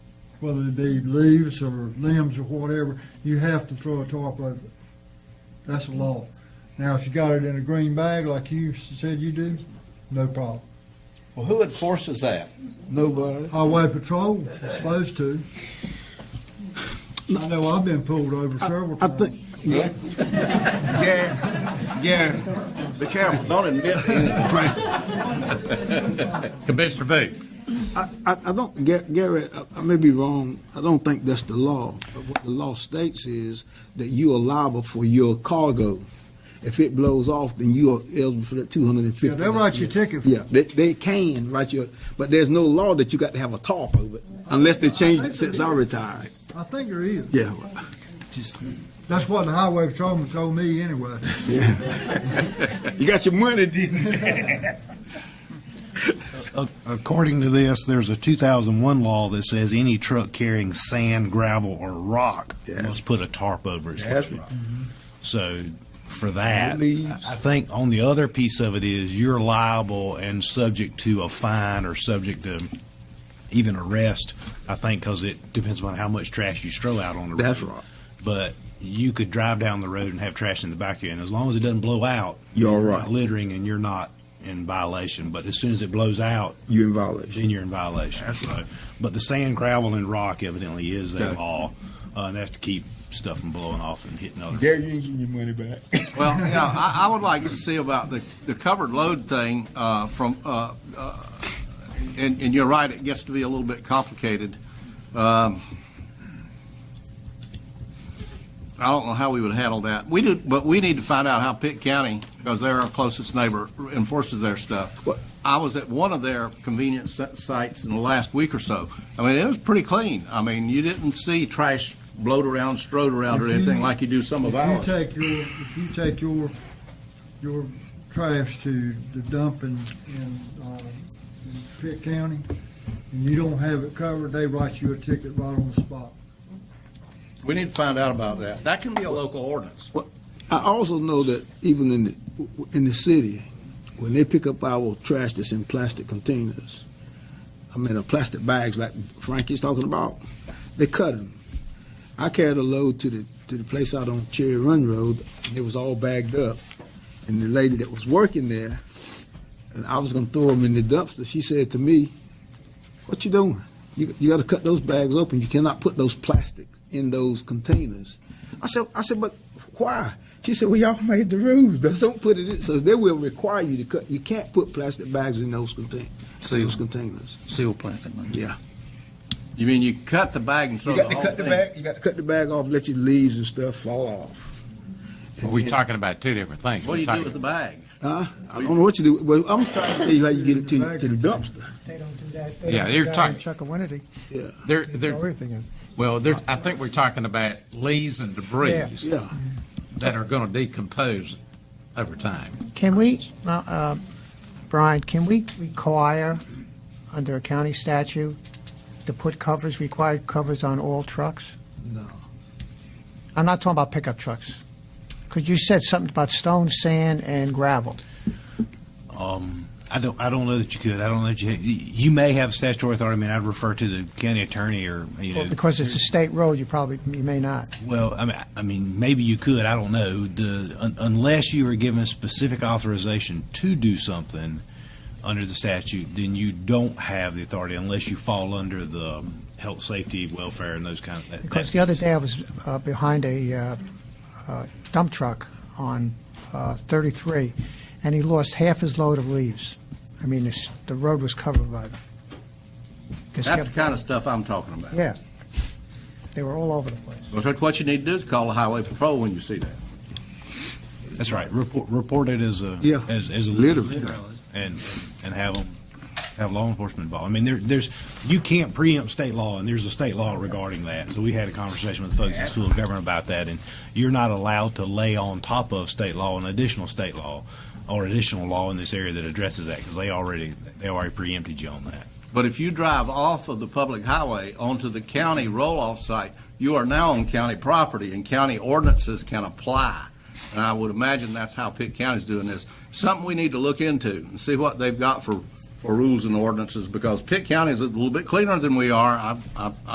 whether it be leaves or limbs or whatever, you have to throw a tarp over it. That's a law. Now, if you got it in a green bag like you said you do, no problem. Well, who enforces that? Nobody. Highway patrol, supposed to. I know I've been pulled over several I times. think, Gary, Gary, Be careful, don't admit anything. Commissioner Booth. I, I I don't, Ga- Gary, I- I may be wrong, I don't think that's the law. But What the law states is that you are liable for your cargo. If it blows off, then you are eligible for that two hundred and Yeah, fifty. they'll write you a ticket for Yeah, they, they can write you, a- but there's no law that you got to have a tarp over it, unless they change it since I retired. I think there is. Yeah, well, just, That's what the highway patrolman told me anyway. you got your money, didn't you? according to this, there's a 2001 law that says any truck carrying sand, gravel, or rock Yeah. must put a tarp over its That's Mm-hmm. truck. So for that, Leaves. I think on the other piece of it is you're liable and subject to a fine or subject to even arrest. I think because it depends upon how much trash you throw out on the road. That's right. But you could drive down the road and have trash in the back of you, and as long as it doesn't blow out, You're all not right. littering and you're not in violation. But as soon as it blows out, You in violation. then you're in violation. So, but the sand, gravel, and rock evidently is a Okay. law, uh, and that's to keep stuff from blowing off and hitting other. Gary, you ain't getting your money back. Well, you know, I, I would like to see about the, the covered load thing, uh, from, uh, uh, and, and you're right, it gets to be a little bit complicated. Um, I don't know how we would handle that. We do, but we need to find out how Pitt County, because they're our closest neighbor, enforces their stuff. What- I was at one of their convenience si- sites in the last week or so. I mean, it was pretty clean. I mean, you didn't see trash blowed around, strode around or If you- anything like you do some of If ours. you take your, if you take your, your trash to the dump in, in, uh, in Pitt County, and you don't have it covered, they write you a ticket right on the spot. We need to find out about that. That can be a local ordinance. Well, I also know that even in the, in the city, when they pick up our trash that's in plastic containers, I mean, uh, plastic bags like Frankie's talking about, they cut them. I carried a load to the, to the place out on Cherry Run Road, and it was all bagged up. And the lady that was working there, and I was gonna throw them in the dumpster, she said to me, what you doing? You, you gotta cut those bags open, you cannot put those plastics in those containers. I said, I said, but why? She said, well, y'all made the rules, Those don't put it in, so they will require you to cut, you can't put plastic bags in those contain, those containers, Seal plastic. yeah. You mean you cut the bag and throw the You got to whole cut the thing? bag, you got to cut the bag off, let your leaves and stuff fall off. We're talking about two different things. What do you do with the bag? Huh? I don't know what you do, well, I'm trying to tell you how you get it to, to the dumpster. They don't do that. They Yeah, don't you're do that talking- in Chuckawinity. Yeah, They're, They they're- throw everything in. well, they're, I think we're talking about leaves and debris Yeah. yeah. that are going to decompose over time. Can we, uh, uh, Brian, can we require, under a county statute, to put covers, required covers on all trucks? No. I'm not talking about pickup trucks. Because you said something about stone, sand, and gravel. Um, I don't. I don't know that you could. I don't know that you. You may have statutory authority. I mean, I'd refer to the county attorney or you know. Because it's a state road, you probably, you may not. Well, I mean, I- I mean, maybe you could. I don't know. The, un, unless you are given specific authorization to do something under the statute, then you don't have the authority unless you fall under the health, safety, welfare, and those kind of. That, Because that- the other day I was uh, behind a uh, uh, dump truck on uh, 33, and he lost half his load of leaves. I mean, this- the road was covered by them. They That's the skipped- kind of stuff I'm talking about. Yeah. They were all over the place. But What you need to do is call the highway patrol when you see that. That's right. Report, report it as a Yeah. as, as a Literally. and and have them have law enforcement involved. I mean, there, there's you can't preempt state law, and there's a state law regarding that. So we had a conversation with folks in school of government about that, and you're not allowed to lay on top of state law an additional state law or additional law in this area that addresses that because they already they already preempted you on that. But if you drive off of the public highway onto the county roll-off site, you are now on county property, and county ordinances can apply. And I would imagine that's how Pitt County's doing this. Something we need to look into and see what they've got for, for rules and ordinances, because Pitt County is a little bit cleaner than we are. I, I,